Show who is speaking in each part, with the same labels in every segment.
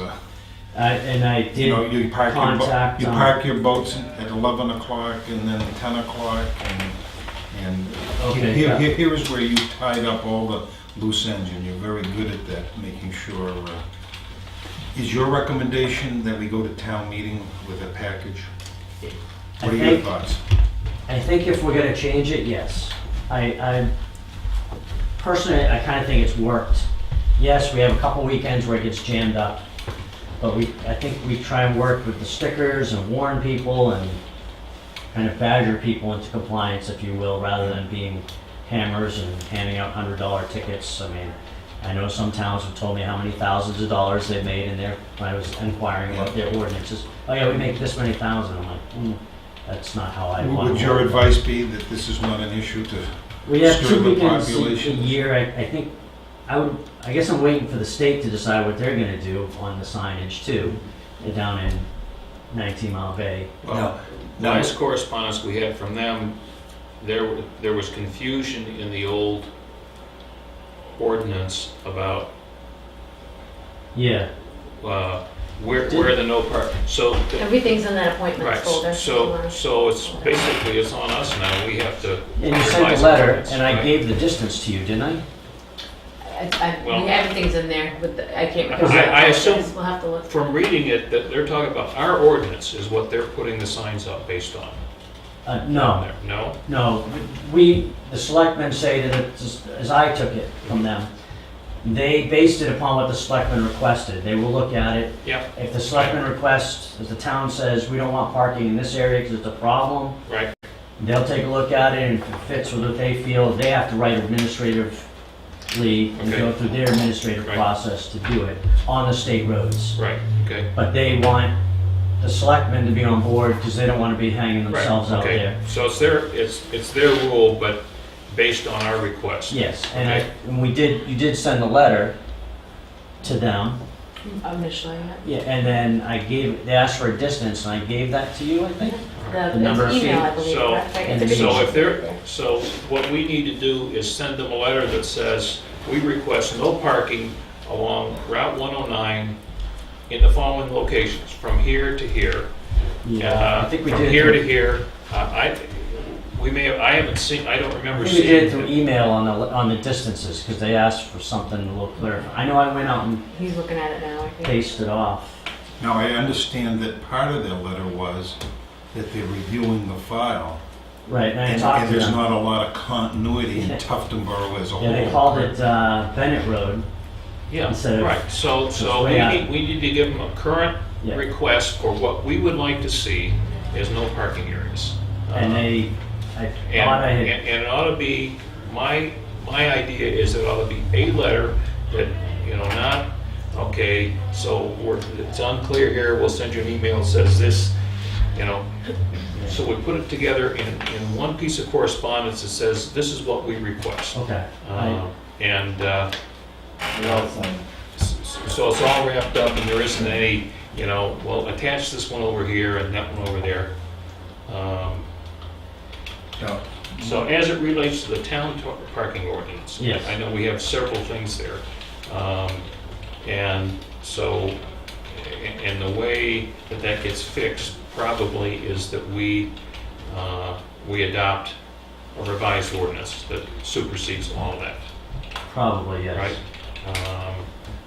Speaker 1: I, Uh, and I
Speaker 2: You know,
Speaker 1: did,
Speaker 2: you park your, bo-
Speaker 1: contact,
Speaker 2: you
Speaker 1: um,
Speaker 2: park your boats at eleven o'clock and then ten o'clock and, and
Speaker 1: Okay,
Speaker 2: here,
Speaker 1: yeah.
Speaker 2: here, here is where you tied up all the loose ends and you're very good at that, making sure. uh, Is your recommendation that we go to town meeting with a package?
Speaker 1: I
Speaker 2: What are your
Speaker 1: think,
Speaker 2: thoughts?
Speaker 1: I think if we're gonna change it, yes. I, I, personally, I kinda think it's worked. Yes, we have a couple weekends where it gets jammed up, but we, I think we try and work with the stickers and warn people and kind of badger people into compliance, if you will, rather than being hammers and handing out hundred dollar tickets. I mean, I know some towns have told me how many thousands of dollars they've made in their, when I was inquiring about their ordinances. Oh yeah, we make this many thousand. I'm like, hmm, that's not how I want.
Speaker 2: Would your
Speaker 1: it."
Speaker 2: advice be that this is not an issue to,
Speaker 1: We have
Speaker 2: Stir
Speaker 1: two
Speaker 2: the
Speaker 1: weekends a- a
Speaker 2: population.
Speaker 1: year, I, I think, I would, I guess I'm waiting for the state to decide what they're gonna do on the signage too, down in nineteen Mile Bay.
Speaker 2: well,
Speaker 3: Last correspondence we had from them, there, there was confusion in the old ordinance about
Speaker 1: Yeah,
Speaker 3: uh, where, where the no park, so,
Speaker 4: Everything's in that appointments
Speaker 3: right,
Speaker 4: folder.
Speaker 3: so, so it's basically, it's on us now, we have to.
Speaker 1: and you sent
Speaker 3: revise
Speaker 1: a
Speaker 3: the
Speaker 1: letter,
Speaker 3: ordinance,
Speaker 1: and I
Speaker 3: right?
Speaker 1: gave the distance to you, didn't I?
Speaker 4: uh, I, I,
Speaker 3: Well-
Speaker 4: everything's in there with the, I can't
Speaker 3: I-
Speaker 4: remember.
Speaker 3: I assume-
Speaker 4: We'll have to look.
Speaker 3: From reading it, that they're talking about our ordinance is what they're putting the signs up based on.
Speaker 1: Uh, no,
Speaker 3: There- No?
Speaker 1: no, we, the selectmen say that it's, as I took it from them, they based it upon what the selectmen requested, they will look at it,
Speaker 3: Yeah,
Speaker 1: if the selectmen request, if the town says, we don't want parking in this area because it's a problem,
Speaker 3: right,
Speaker 1: They'll take a look at it, and if it fits with what they feel, they have to write administratively and go
Speaker 3: Okay.
Speaker 1: through their administrative
Speaker 3: Right.
Speaker 1: process to do it on the state roads.
Speaker 3: right, okay.
Speaker 1: But they want the selectmen to be on board, because they don't want to be hanging
Speaker 3: Right,
Speaker 1: themselves out
Speaker 3: okay.
Speaker 1: there.
Speaker 3: So it's their, it's, it's their rule, but based on our request.
Speaker 1: Yes, and I,
Speaker 3: Okay.
Speaker 1: and we did, you did send a letter to them,
Speaker 4: Initially, yeah.
Speaker 1: yeah, and then I gave, they asked for a distance, and I gave that to you, I think?
Speaker 4: The,
Speaker 1: The number of
Speaker 4: it's email,
Speaker 1: feet.
Speaker 4: I believe,
Speaker 3: So-
Speaker 4: correct? Right,
Speaker 1: and
Speaker 4: it's a big
Speaker 3: So
Speaker 4: email.
Speaker 3: if they're, so what we need to do is send them a letter that says, we request no parking along Route 109 in the following locations, from here to here.
Speaker 1: Yeah, I think we
Speaker 3: uh,
Speaker 1: did.
Speaker 3: From here to
Speaker 1: it
Speaker 3: here. Uh, I, we may have, I haven't seen, I don't
Speaker 1: through- I
Speaker 3: remember
Speaker 1: think we did it
Speaker 3: seeing.
Speaker 1: through
Speaker 3: it.
Speaker 1: email on the, on the distances, because they asked for something a little clearer. I know I went out and
Speaker 4: He's looking at it now, I think.
Speaker 1: paste it off.
Speaker 2: now I understand that part of their letter was that they're reviewing the file.
Speaker 1: Right, and I
Speaker 2: And,
Speaker 1: talked
Speaker 2: and
Speaker 1: to
Speaker 2: there's
Speaker 1: them.
Speaker 2: not a lot of continuity in
Speaker 1: Yeah.
Speaker 2: Tufton Borough as a whole.
Speaker 1: Yeah, they called it uh, Bennett Road. instead
Speaker 3: Yeah,
Speaker 1: of-
Speaker 3: right. So, so
Speaker 1: way
Speaker 3: we
Speaker 1: out.
Speaker 3: need, we need to give them a current
Speaker 1: Yeah.
Speaker 3: request for what we would like to see is no parking areas.
Speaker 1: And
Speaker 3: Uh,
Speaker 1: they, I
Speaker 3: And,
Speaker 1: thought I had,
Speaker 3: and, and it ought to be, my, my idea is it ought to be a letter that, you know, not, okay, so we're, it's unclear here, we'll send you an email that says this, you know. So we put it together in, in one piece of correspondence that says, this is what we request.
Speaker 1: okay.
Speaker 3: Uh,
Speaker 1: I-
Speaker 3: And, uh, you know, s- s- so it's all wrapped up and there isn't any, you know, well, attach this one over here and that one over there. Um,
Speaker 2: Now,
Speaker 3: so as it relates to the town to- parking ordinance?
Speaker 1: Yes.
Speaker 3: I know we have several things there. Um, And so, a- and the way that that gets fixed probably is that we, uh, we adopt a revised ordinance that supersedes all of that,
Speaker 1: Probably, yes.
Speaker 3: right? Um,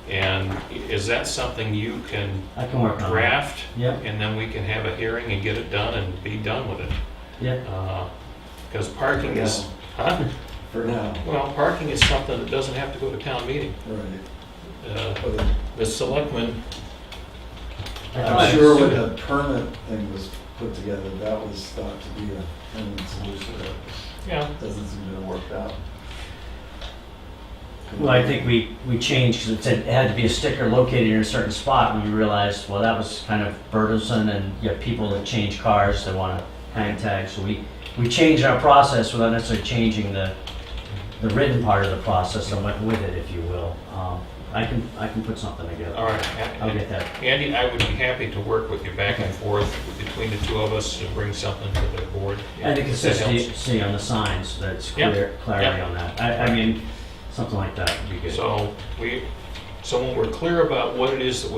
Speaker 3: And i- is that something you can
Speaker 1: I can work on it.
Speaker 3: draft?
Speaker 1: Yep,
Speaker 3: And then we can have a hearing and get it done and be done with it?
Speaker 1: yep.
Speaker 3: Because parking is, huh?
Speaker 5: For now,
Speaker 3: Well, parking is something that doesn't have to go to town meeting.
Speaker 5: right.
Speaker 3: Uh,
Speaker 5: But
Speaker 3: The selectmen,
Speaker 5: I'm sure when the permit thing was put together, that was thought to be a permanent solution,
Speaker 3: yeah,
Speaker 5: but doesn't seem to have worked out.
Speaker 1: Well, I think we, we changed, because it said it had to be a sticker located in a certain spot, and we realized, well, that was kind of burdensome, and you have people that change cars that want to hang tags, so we, we changed our process without necessarily changing the, the written part of the process and went with it, if you will. Um, I can, I can put something
Speaker 3: all
Speaker 1: together.
Speaker 3: right.
Speaker 1: I'll get that.
Speaker 3: Andy, I would be happy to work with you back and forth between the two of us to bring something to the board.
Speaker 1: And the
Speaker 3: If that helps.
Speaker 1: consistency on the signs, that's
Speaker 3: Yeah,
Speaker 1: clear, clarity
Speaker 3: yeah.
Speaker 1: on that. I, I mean, something like that would be good.
Speaker 3: So we, so when we're clear about what it is that we